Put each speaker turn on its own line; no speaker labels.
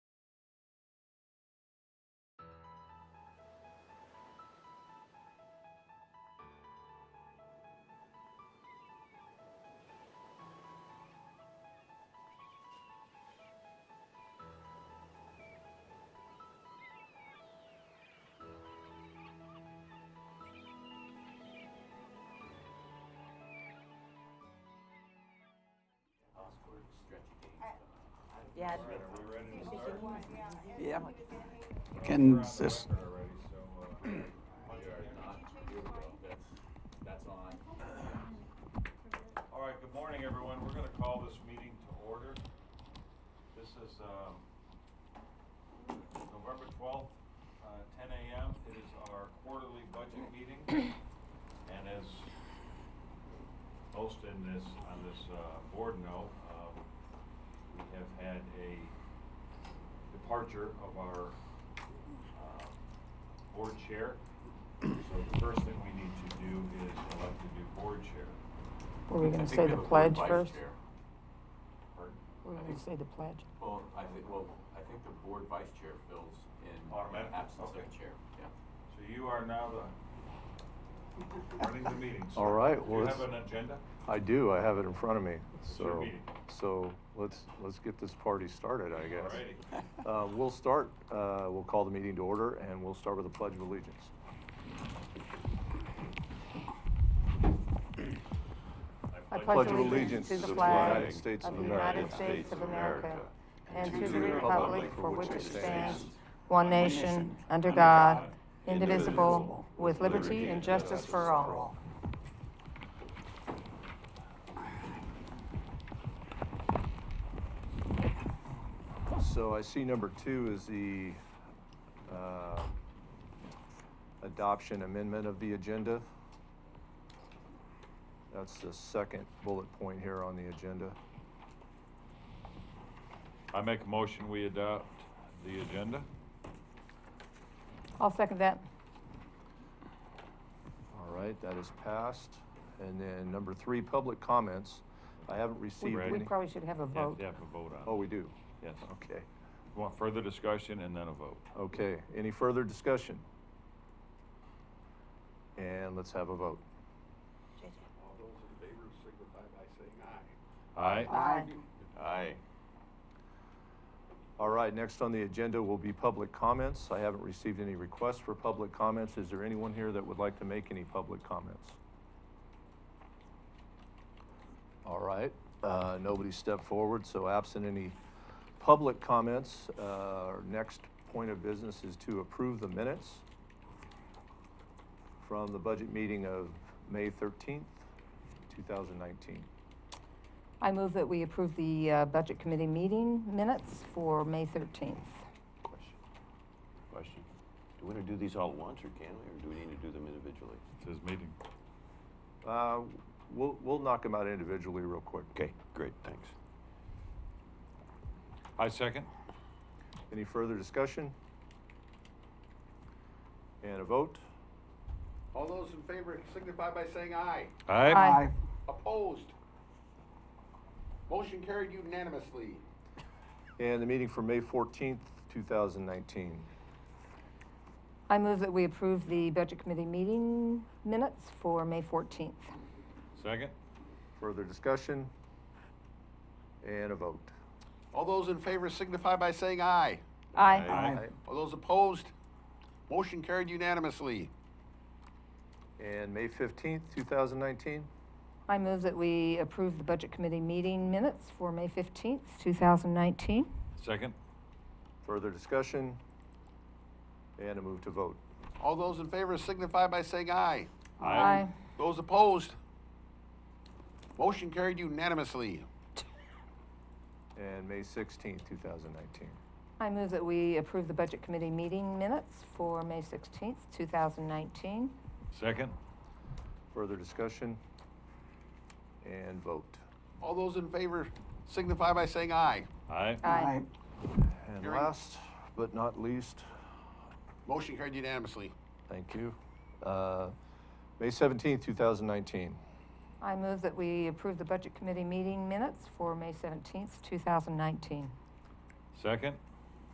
Yeah.
All right, are we ready to start?
Yeah.
We're
Can
on the
this,
record already, so, uh, All right, good morning, everyone. We're going to call this meeting to order. This is um, November 12th, uh, 10 a.m. It is our quarterly budget meeting. And as most in this, on this uh, board know, um, we have had a departure of our uh, board chair. So the first thing we need to do is elect a new board chair.
Were we
I
gonna
think
say
we
the
have a board
pledge
vice
first?
chair.
Pardon?
Were we
I
gonna
think-
say the pledge?
Well, I think, well, I think the board vice chair fills in
Automatic?
the absence of
Okay.
a chair, yeah.
So you are now the, running the meeting. sir.
All right,
Do you
well,
have an
let's-
agenda?
I do, I have it in front of me,
It's your
so,
meeting.
so let's, let's get this party started, I guess.
Alrighty.
Uh, we'll start, uh, we'll call the meeting to order, and we'll start with the Pledge of Allegiance.
I pledge allegiance to the flag of the United States of America and to the republic for which it stands, one nation, under God, indivisible, with liberty and justice for all.
So I see number two is the, uh, adoption amendment of the agenda. That's the second bullet point here on the agenda.
I make a motion, we adopt the agenda.
I'll second that.
All right, that is passed. And then number three, public comments. I haven't
We
received
Ready?
we
any.
probably should have a
Yeah,
vote.
yeah, have a vote on.
Oh, we do.
Yes.
Okay,
Want further discussion and then a vote.
okay. Any further discussion? And let's have a vote.
All those in favor signify by saying aye.
Aye?
Aye.
Aye.
All right, next on the agenda will be public comments. I haven't received any requests for public comments. Is there anyone here that would like to make any public comments? All right, uh, nobody stepped forward, so absent any public comments, uh, our next point of business is to approve the minutes from the budget meeting of May 13th, 2019.
I move that we approve the uh, Budget Committee meeting minutes for May 13th.
Question. Question. Do we want to do these all at once, or can we, or do we need to do them individually?
It's his meeting.
Uh, We'll we'll knock them out individually real quick.
Okay, great, thanks.
I second.
Any further discussion? And a vote?
All those in favor signify by saying aye.
Aye?
Opposed? Motion carried unanimously.
And the meeting for May 14th, 2019.
I move that we approve the Budget Committee meeting minutes for May 14th.
Second?
Further discussion? And a vote?
All those in favor signify by saying aye.
Aye.
All those opposed? Motion carried unanimously.
And May 15th, 2019?
I move that we approve the Budget Committee meeting minutes for May 15th, 2019.
Second?
Further discussion? And a move to vote?
All those in favor signify by saying aye.
Aye.
Those opposed? Motion carried unanimously.
And May 16th, 2019.
I move that we approve the Budget Committee meeting minutes for May 16th, 2019.
Second?
Further discussion? And vote?
All those in favor signify by saying aye.
Aye?
Aye.
And
Hearing-
last but not least,
Motion carried unanimously.
Thank you. Uh, May 17th, 2019.
I move that we approve the Budget Committee meeting minutes for May 17th, 2019.
Second?